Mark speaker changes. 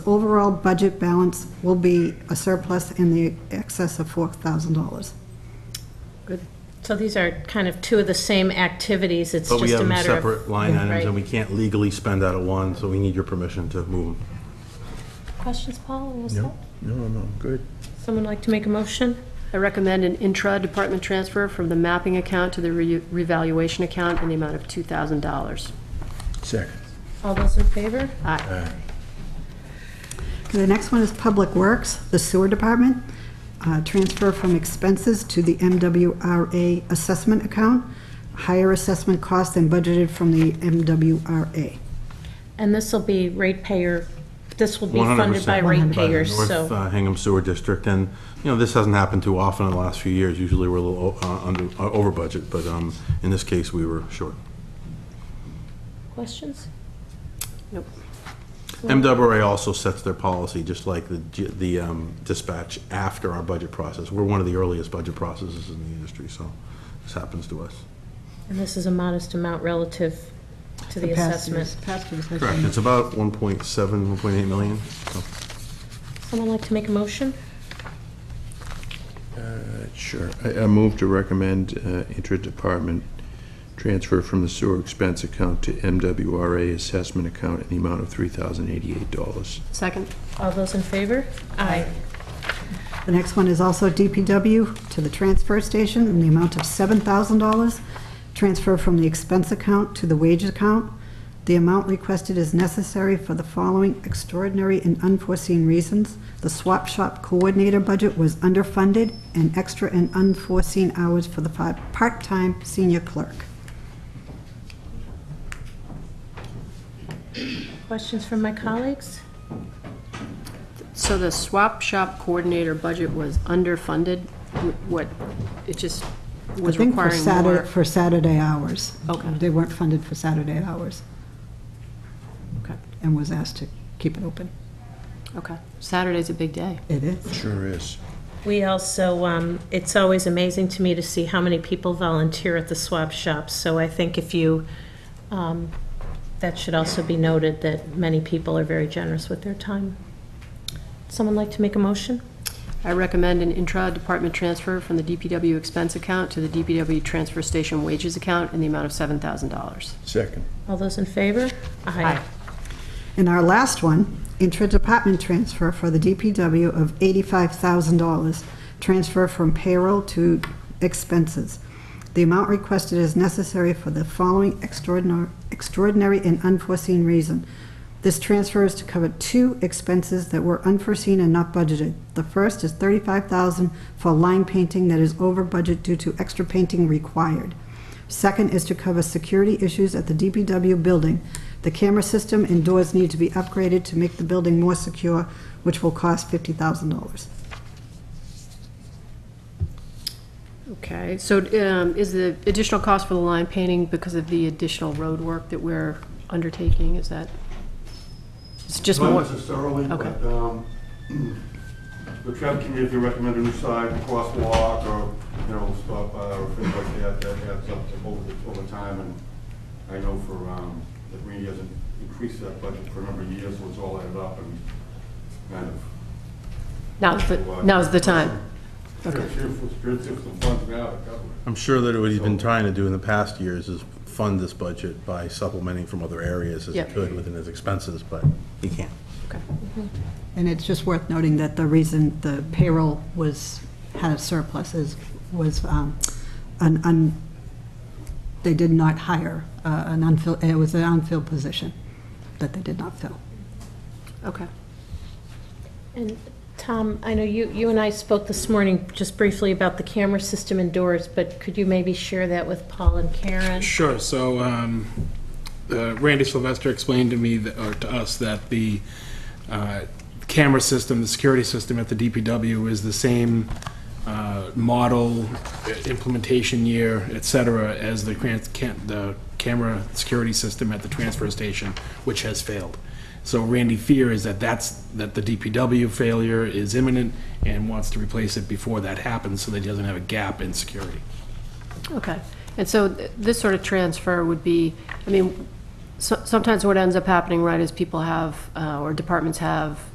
Speaker 1: Overall budget balance will be a surplus in the excess of $4,000.
Speaker 2: So these are kind of two of the same activities, it's
Speaker 3: But we
Speaker 2: just a
Speaker 3: have them
Speaker 2: matter of...
Speaker 3: separate line items,
Speaker 2: Right.
Speaker 3: and we can't legally spend out of one, so we need your permission to move them.
Speaker 2: Questions, Paul? What was that?
Speaker 4: No, no, good.
Speaker 2: Someone like to make a motion?
Speaker 5: I recommend an intra-department transfer from the mapping account to the re- revaluation account in the amount of $2,000.
Speaker 4: Second.
Speaker 2: All those in favor?
Speaker 5: Aye.
Speaker 1: Okay, The next one is Public Works, the Sewer Department. Uh, Transfer from expenses to the MWRA assessment account. Higher assessment cost than budgeted from the MWRA.
Speaker 2: And this will be ratepayer, this will be funded by
Speaker 3: 100% by the
Speaker 2: ratepayers,
Speaker 3: North
Speaker 2: so...
Speaker 3: uh, Hingham Sewer District, and, you know, this hasn't happened too often in the last few years. Usually, we're a little o- uh, under, uh, over budget, but um, in this case, we were short.
Speaker 2: Questions?
Speaker 5: Nope.
Speaker 3: MWRA also sets their policy, just like the G- the um, dispatch, after our budget process. We're one of the earliest budget processes in the industry, so this happens to us.
Speaker 2: And this is a modest amount relative to the
Speaker 1: Past
Speaker 2: assessment.
Speaker 1: years- Past years. I
Speaker 3: Correct,
Speaker 1: think.
Speaker 3: it's about 1.7, 1.8 million, so.
Speaker 2: Someone like to make a motion?
Speaker 4: Sure. I I move to recommend uh, intra-department transfer from the sewer expense account to MWRA assessment account in the amount of $3,088.
Speaker 5: Second?
Speaker 2: All those in favor? Aye.
Speaker 1: The next one is also DPW to the transfer station in the amount of $7,000. Transfer from the expense account to the wage account. The amount requested is necessary for the following extraordinary and unforeseen reasons. The swap shop coordinator budget was underfunded and extra and unforeseen hours for the fi- part-time senior clerk.
Speaker 2: Questions from my colleagues?
Speaker 5: So the swap shop coordinator budget was underfunded? Wh- What, it just
Speaker 1: I
Speaker 5: was
Speaker 1: think for
Speaker 5: requiring more?
Speaker 1: Saturday, for Saturday hours.
Speaker 5: Okay.
Speaker 1: They weren't funded for Saturday hours
Speaker 5: Okay,
Speaker 1: and was asked to keep it open.
Speaker 5: okay. Saturday's a big day.
Speaker 1: It is.
Speaker 4: Sure is.
Speaker 2: We also, um, it's always amazing to me to see how many people volunteer at the swap shops. So I think if you, um, that should also be noted that many people are very generous with their time. Someone like to make a motion?
Speaker 5: I recommend an intra-department transfer from the DPW expense account to the DPW transfer station wages account in the amount of $7,000.
Speaker 4: Second.
Speaker 2: All those in favor?
Speaker 5: Aye.
Speaker 1: And our last one, intra-department transfer for the DPW of $85,000, transfer from payroll to expenses. The amount requested is necessary for the following extraordinar- extraordinary and unforeseen reason. This transfer is to cover two expenses that were unforeseen and not budgeted. The first is $35,000 for line painting that is over budget due to extra painting required. Second is to cover security issues at the DPW building. The camera system and doors need to be upgraded to make the building more secure, which will cost $50,000.
Speaker 5: Okay, so um, is the additional cost for the line painting because of the additional road work that we're undertaking, is that? It's just
Speaker 6: Not
Speaker 5: more,
Speaker 6: necessarily, but
Speaker 5: Okay.
Speaker 6: um, the traffic committee recommended a new side, crosswalk, or, you know, stop by, or things like that, that adds up to over, over time, and I know for, um, the Green hasn't increased that budget for a number of years, so it's all added up and kind of.
Speaker 5: now's the, now's the time.
Speaker 6: Sure, sure, sure, sure, some funds now to cover it.
Speaker 3: I'm sure that what he's been trying to do in the past years is fund this budget by supplementing from other areas as he
Speaker 5: Yep.
Speaker 3: could within his expenses, but he can't.
Speaker 1: And it's just worth noting that the reason the payroll was, had a surplus is, was um, an, un- they did not hire uh, an unfilled, it was an unfilled position that they did not fill.
Speaker 5: Okay.
Speaker 2: And Tom, I know you, you and I spoke this morning just briefly about the camera system indoors, but could you maybe share that with Paul and Karen?
Speaker 7: Sure, so um, uh, Randy Sylvester explained to me, that- or to us, that the uh, camera system, the security system at the DPW is the same uh, model, uh, implementation year, et cetera, as the cran- can- the camera security system at the transfer station, which has failed. So Randy fear is that that's, that the DPW failure is imminent and wants to replace it before that happens, so that he doesn't have a gap in security.
Speaker 5: Okay. And so th- this sort of transfer would be, I mean, so- sometimes what ends up happening, right, is people have, uh, or departments have